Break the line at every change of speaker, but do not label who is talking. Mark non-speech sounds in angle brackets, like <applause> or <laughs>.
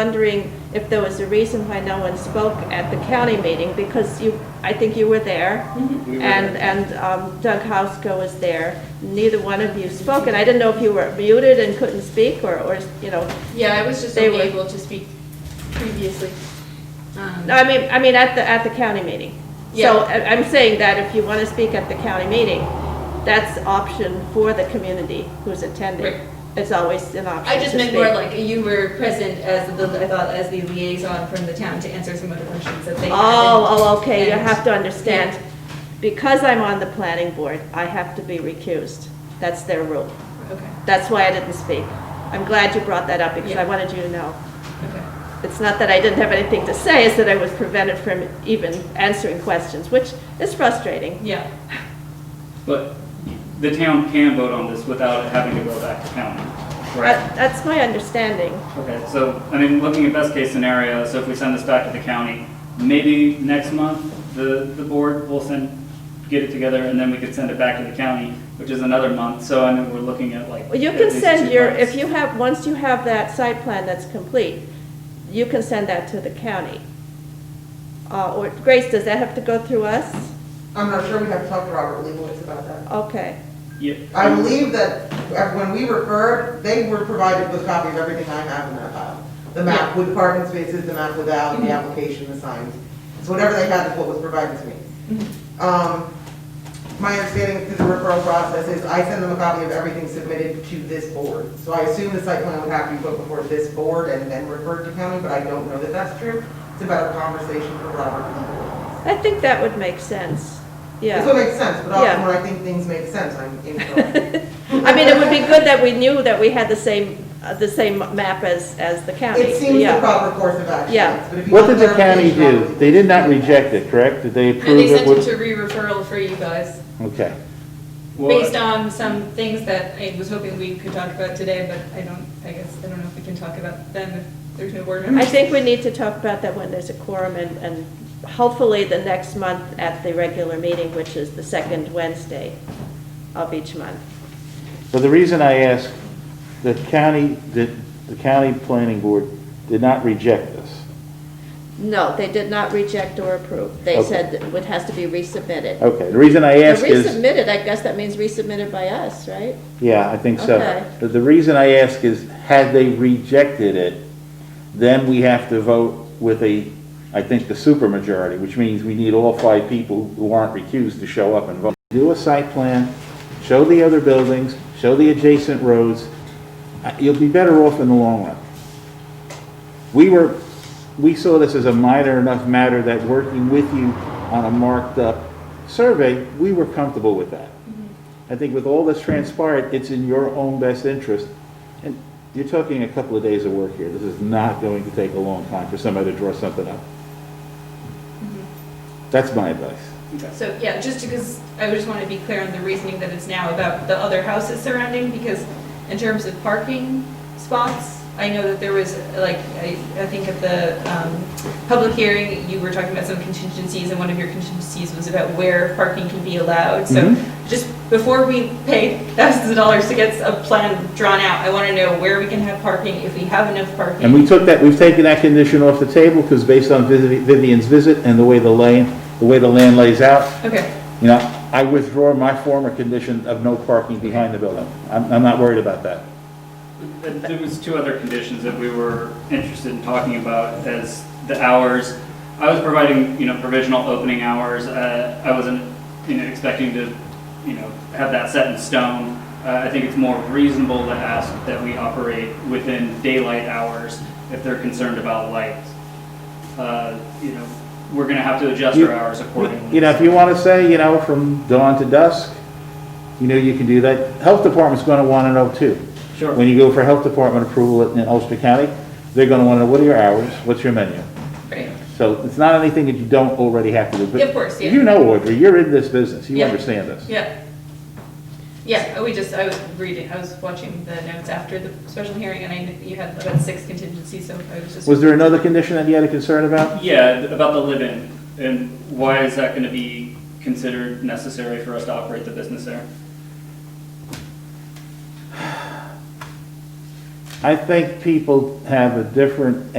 wondering if there was a reason why no one spoke at the county meeting, because you, I think you were there.
We were
And,
there.
and um, Doug Housko was there. Neither one of you spoke, and I didn't know if you were muted and couldn't speak, or, or, you know.
Yeah, I was just
They
only
were-
able to speak previously. Um,
No, I mean, I mean, at the, at the county meeting. So
Yeah.
I- I'm saying that if you want to speak at the county meeting, that's option for the community who's attending.
Right.
It's always an option
I just
to
meant more
speak.
like you were present as the, I thought, as the liaison from the town to answer some of the questions that they had.
Oh, oh, okay, you
And-
have to understand, because I'm on the planning board, I have to be recused. That's their rule.
Okay,
That's why I didn't speak. I'm glad you brought that up, because I
Yeah.
wanted you to know.
okay.
It's not that I didn't have anything to say, it's that I was prevented from even answering questions, which is frustrating.
Yeah,
But the town can vote on this without having to go back to county, right?
That- That's my understanding.
Okay, so, I mean, looking at best case scenario, so if we send this back to the county, maybe next month, the, the board will send, get it together, and then we could send it back to the county, which is another month, so I mean, we're looking at like.
Well, You
at
can
least
send
two
your,
months.
if you have, once you have that site plan that's complete, you can send that to the county. Uh, Or, Grace, does that have to go through us?
I'm not sure we have to talk to Robert Leibowitz about that.
Okay,
I
Yeah,
believe that when we referred, they were provided with a copy of everything I have in that file. The map with parking spaces, the map without, the application, the signs. So whatever they had is what was provided to me. Um, My understanding through the referral process is I send them a copy of everything submitted to this board. So I assume the site plan would have to be put before this board and then referred to county, but I don't know that that's true. It's about a conversation for Robert Leibowitz.
I think that would make sense,
That's what
yeah.
makes sense, but often
Yeah.
when I think things make sense,
<laughs>
I'm incorrect.
I mean, it would be good that we knew that we had the same, uh, the same map as, as the county.
It seems the
Yeah.
proper course of action.
Yeah.
but if you
What
want
did the county
clarification,
do? They did not reject it, correct? Did they
no,
approve
they
it?
sent it
with-
to re-referral for you guys,
Okay.
well,
based on some things that I was hoping we could talk about today, but I don't, I guess, I don't know if we can talk about them if there's no board
I
members.
think we need to talk about that when there's a quorum and, and hopefully the next month at the regular meeting, which is the second Wednesday of each month.
Well, the reason I ask, the county, the the county planning board did not reject this.
No, they did not reject or approve. They
Okay.
said it would- has to be resubmitted.
Okay, the reason I
Now,
ask is,
Resubmitted, I guess that means resubmitted by us, right?
yeah, I think so.
Okay.
But the reason I ask is, had they rejected it, then we have to vote with a, I think, the supermajority, which means we need all five people who aren't recused to show up and vote. Do a site plan, show the other buildings, show the adjacent roads. Uh, You'll be better off in the long run. We were, we saw this as a minor enough matter that working with you on a marked-up survey, we were comfortable with that. I think with all that's transpired, it's in your own best interest. And you're talking a couple of days of work here. This is not going to take a long time for somebody to draw something up.
Mm-hmm.
That's my advice.
So, yeah, just because, I just want to be clear on the reasoning that it's now about the other houses surrounding, because in terms of parking spots, I know that there was, like, I, I think at the, um, public hearing, you were talking about some contingencies, and one of your contingencies was about where parking can be allowed, so
Mhm.
just before we pay thousands of dollars to get a plan drawn out, I want to know where we can have parking, if we have enough parking.
And we took that, we've taken that condition off the table because based on Vivi- Vivian's visit and the way the lane, the way the land lays out,
Okay,
you know, I withdraw my former condition of no parking behind the building. I'm, I'm not worried about that.
But There was two other conditions that we were interested in talking about as the hours. I was providing, you know, provisional opening hours. Uh, I wasn't, you know, expecting to, you know, have that set in stone. Uh, I think it's more reasonable to ask that we operate within daylight hours if they're concerned about light. Uh, You know, we're gonna have to adjust our hours accordingly.
You know, if you want to say, you know, from dawn to dusk, you know, you can do that. Health department's going to want to know too.
Sure.
When you go for health department approval in in Ulster County, they're going to want to know, what are your hours? What's your menu?
great.
So it's not anything that you don't already have to do. but
Of course, yeah.
You know, Audrey, you're in this business. You
Yeah.
understand this.
Yeah. Yeah, we just, I was reading, I was watching the notes after the special hearing, and I, kn- you had about six contingencies, so I was just.
Was there another condition that you had a concern about?
Yeah, th- about the live-in, and why is that gonna be considered necessary for us to operate the business there?
I think people have a different